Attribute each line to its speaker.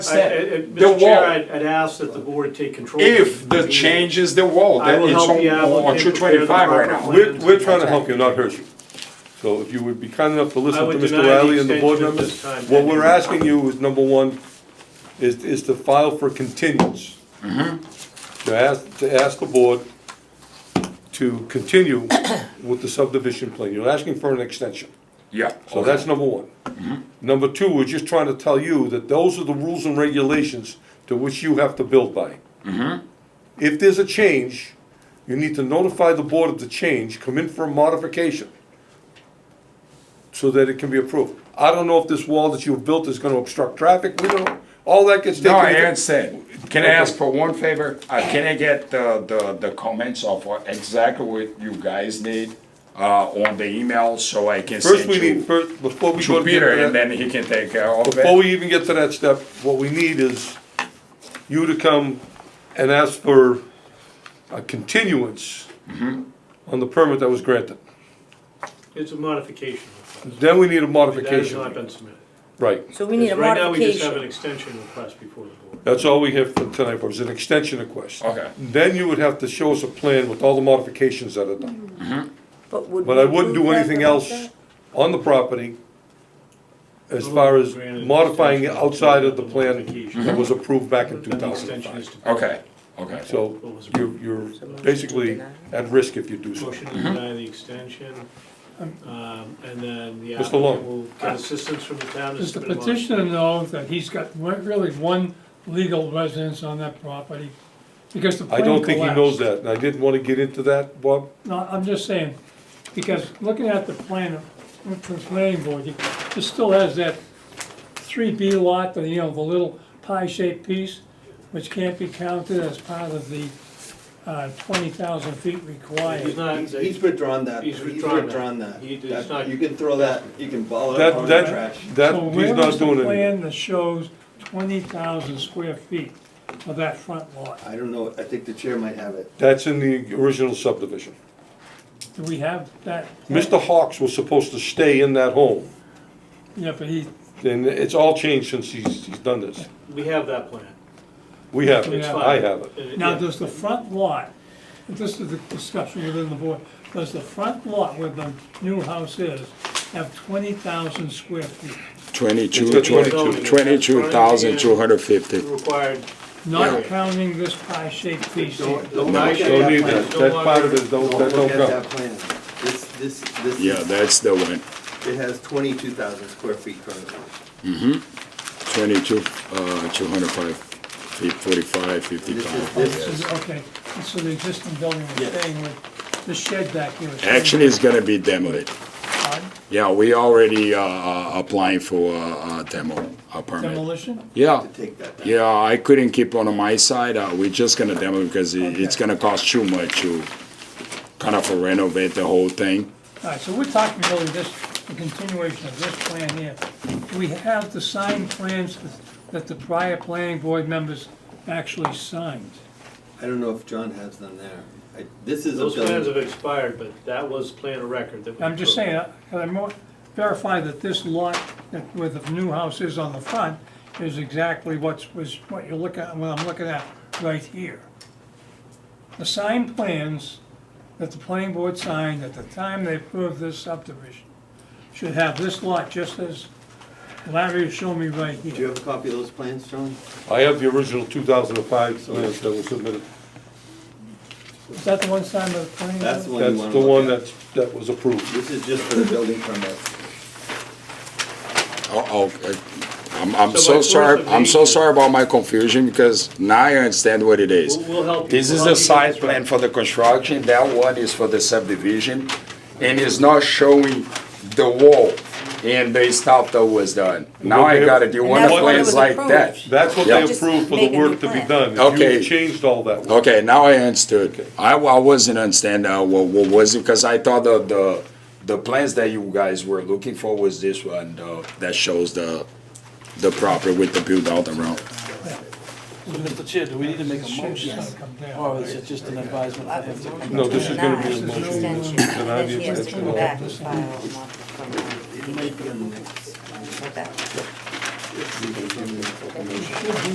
Speaker 1: I- I-
Speaker 2: said, the
Speaker 1: Mr. Chair,
Speaker 2: wall.
Speaker 1: I'd, I'd ask that the board take control.
Speaker 2: If the change is the wall,
Speaker 1: I
Speaker 2: then
Speaker 1: will
Speaker 2: it's
Speaker 1: help
Speaker 2: on,
Speaker 1: you out
Speaker 2: on
Speaker 1: and
Speaker 2: two
Speaker 1: prepare the
Speaker 2: twenty-five right
Speaker 1: proper
Speaker 2: now.
Speaker 1: plan.
Speaker 3: We're, we're trying to help you, not hurt you. So if you would be kind enough to
Speaker 1: I
Speaker 3: listen to
Speaker 1: would
Speaker 3: Mr.
Speaker 1: deny the
Speaker 3: Riley and the board
Speaker 1: extension at
Speaker 3: members,
Speaker 1: this time,
Speaker 3: what
Speaker 1: pending-
Speaker 3: we're asking you is, number one, is, is to file for continuance. To ask, to ask the board to continue with the subdivision plan. You're asking for an extension.
Speaker 2: Yeah.
Speaker 3: So that's number one.
Speaker 2: Mm-hmm.
Speaker 3: Number two, we're just trying to tell you that those are the rules and regulations to which you have to build by.
Speaker 2: Mm-hmm.
Speaker 3: If there's a change, you need to notify the board of the change, come in for a modification so that it can be approved. I don't know if this wall that you've built is gonna obstruct traffic, we don't, all that gets
Speaker 2: No,
Speaker 3: taken.
Speaker 2: I
Speaker 3: into-
Speaker 2: understand. Can I
Speaker 3: Okay.
Speaker 2: ask for one favor? Uh, can I get the, the, the comments of what- exactly what you guys need, uh, on the email so I can
Speaker 3: First,
Speaker 2: send
Speaker 3: we
Speaker 2: you
Speaker 3: need, first, before we
Speaker 2: to
Speaker 3: go to. the
Speaker 2: Peter and
Speaker 3: internet-
Speaker 2: then he can take care of
Speaker 3: Before
Speaker 2: it?
Speaker 3: we even get to that step, what we need is you to come and ask for a continuance on the permit that was granted.
Speaker 1: It's a modification. request.
Speaker 3: Then we need
Speaker 1: That
Speaker 3: a
Speaker 1: has not
Speaker 3: modification.
Speaker 1: been submitted.
Speaker 3: Right,
Speaker 4: So we need a
Speaker 1: Right now, we just have an
Speaker 4: modification.
Speaker 1: extension request before the board.
Speaker 3: that's all we have for tonight, was an extension request.
Speaker 2: Okay.
Speaker 3: Then you would have to show us a plan with all the modifications that are done.
Speaker 4: But would
Speaker 3: But I
Speaker 4: we
Speaker 3: wouldn't do
Speaker 4: approve that
Speaker 3: anything
Speaker 4: without
Speaker 3: else
Speaker 4: that?
Speaker 3: on the property as far as modifying it outside of the plan that was approved back in two
Speaker 1: Then the
Speaker 3: thousand and
Speaker 1: Mm-hmm. extension
Speaker 3: five.
Speaker 1: is to.
Speaker 2: Okay, okay.
Speaker 3: So you're, you're basically at risk if you do so.
Speaker 1: Motion to deny the extension, um, and then the
Speaker 3: Mr. Long.
Speaker 1: applicant will get assistance from the town to
Speaker 5: Does the
Speaker 1: submit a mod-
Speaker 5: petitioner know that he's got re- really one legal residence on that property? Because the
Speaker 3: I
Speaker 5: plan
Speaker 3: don't think he knows
Speaker 5: collapsed.
Speaker 3: that, and I didn't want to get into that, Bob.
Speaker 5: No, I'm just saying, because looking at the plan of, from the planning board, it it still has that three B lot, the, you know, the little pie-shaped piece, which can't be counted as part of the, uh, twenty thousand feet
Speaker 1: He's
Speaker 5: required.
Speaker 1: not,
Speaker 6: He's withdrawn that.
Speaker 1: He's withdrawn that. He- he's
Speaker 6: That-
Speaker 1: not-
Speaker 6: You can throw that, you can ball it
Speaker 3: That-
Speaker 6: up on
Speaker 3: that-
Speaker 6: the trash.
Speaker 3: That,
Speaker 5: So
Speaker 3: he's
Speaker 5: where
Speaker 3: not
Speaker 5: was the
Speaker 3: doing it.
Speaker 5: plan that shows twenty thousand square feet of that front lot?
Speaker 6: I don't know, I think the chair might have it.
Speaker 3: That's in the original subdivision.
Speaker 5: Do we have that? plan?
Speaker 3: Mr. Hawks was supposed to stay in that home,
Speaker 5: Yeah, but he,
Speaker 3: and it's all changed since he's, he's done this.
Speaker 1: we have that plan.
Speaker 3: We have it,
Speaker 1: It's
Speaker 5: Yeah.
Speaker 1: fine.
Speaker 3: I have it.
Speaker 1: Uh,
Speaker 5: now
Speaker 1: yeah.
Speaker 5: does the front lot, and this is the discussion within the board, does the front lot where the new house is have twenty thousand square feet?
Speaker 7: Twenty-two,
Speaker 3: It's got
Speaker 7: twenty-two,
Speaker 1: 22.
Speaker 7: twenty-two thousand two hundred fifty.
Speaker 1: Required
Speaker 5: Not counting this pie-shaped piece here.
Speaker 6: Don't- don't
Speaker 3: No,
Speaker 6: look at
Speaker 3: don't
Speaker 6: that
Speaker 3: need
Speaker 6: plan.
Speaker 3: that, that part of it, don't,
Speaker 6: Don't
Speaker 3: that don't
Speaker 6: look at
Speaker 3: go.
Speaker 6: that plan. This, this, this.
Speaker 7: Yeah,
Speaker 6: is-
Speaker 7: that's the one.
Speaker 6: It has twenty-two thousand square feet currently.
Speaker 7: Twenty-two, uh, two hundred five, feet forty-five,
Speaker 6: This is,
Speaker 7: fifty-five.
Speaker 6: this is,
Speaker 5: Okay, so the existing building is
Speaker 6: Yes.
Speaker 5: staying with the shed back here. is
Speaker 7: Actually, it's gonna be demoed.
Speaker 5: staying on
Speaker 7: Yeah, we already, uh, uh, applying for, uh, uh, demo, a permit.
Speaker 5: Demolition?
Speaker 7: Yeah,
Speaker 6: to take that down.
Speaker 7: yeah, I couldn't keep on my side, uh, we're just gonna demo because it, it's gonna cost too much to kind of renovate the whole thing.
Speaker 5: All right, so we're talking really this, the continuation of this plan here. We have the signed plans that- that the prior planning board members actually signed.
Speaker 6: I don't know if John has them there. I- This is a
Speaker 1: Those plans
Speaker 6: building.
Speaker 1: have expired, but that was plan of record that we.
Speaker 5: I'm just
Speaker 1: approved.
Speaker 5: saying, uh, can I mo- verify that this lot, that where the new house is on the front, is exactly what's, was, what you're looking, at- what I'm looking at right here. The signed plans that the planning board signed at the time they approved this subdivision should have this lot just as Larry showed me right
Speaker 6: Do you
Speaker 5: here.
Speaker 6: have a copy of those plans, John?
Speaker 3: I have the original two thousand and five plans that were submitted.
Speaker 5: Is that the one signed by the planning board?
Speaker 6: That's the one you
Speaker 3: That's
Speaker 6: want
Speaker 3: the
Speaker 6: to
Speaker 3: one
Speaker 6: look at.
Speaker 3: that's, that was approved.
Speaker 6: This is just for the building permit.
Speaker 7: Oh, oh, uh, I'm, I'm
Speaker 1: So by
Speaker 7: so
Speaker 1: force
Speaker 7: sorry,
Speaker 1: of
Speaker 7: I'm so
Speaker 1: nature-
Speaker 7: sorry about my confusion because now I understand what it is.
Speaker 1: We'll, we'll help you.
Speaker 7: This is
Speaker 1: We'll
Speaker 7: the
Speaker 1: help you
Speaker 7: site
Speaker 1: get this right.
Speaker 7: plan for the construction, that one is for the subdivision, and it's not showing the wall and the stuff that was done. Now I got it, you
Speaker 4: And
Speaker 7: want
Speaker 4: that's
Speaker 7: the
Speaker 4: what it
Speaker 7: plans
Speaker 4: was
Speaker 7: like that?
Speaker 4: approved.
Speaker 3: That's what they
Speaker 4: Yeah. Just
Speaker 3: approved for the
Speaker 4: make a new
Speaker 3: work to be
Speaker 4: plan.
Speaker 3: done.
Speaker 7: Okay.
Speaker 3: You changed all that. work.
Speaker 7: Okay, now I understood. I, I wasn't understand, uh, what, what was it, because I thought the, the, the plans that you guys were looking for was this one, uh, that shows the, the proper with the build out around.
Speaker 8: Mr. Chair, do we need to make a motion,
Speaker 5: Yes. Come down.
Speaker 8: or is it just an advisement? I have to-
Speaker 3: No, this is gonna be a
Speaker 4: Deny
Speaker 3: motion.
Speaker 4: extension,
Speaker 3: Deny
Speaker 4: That
Speaker 3: the
Speaker 4: she has to
Speaker 3: extension.
Speaker 4: come back and file a month from now.
Speaker 6: It might be on the next.
Speaker 4: Put that.
Speaker 6: It's- it's- it's- it's- it's-
Speaker 5: Should be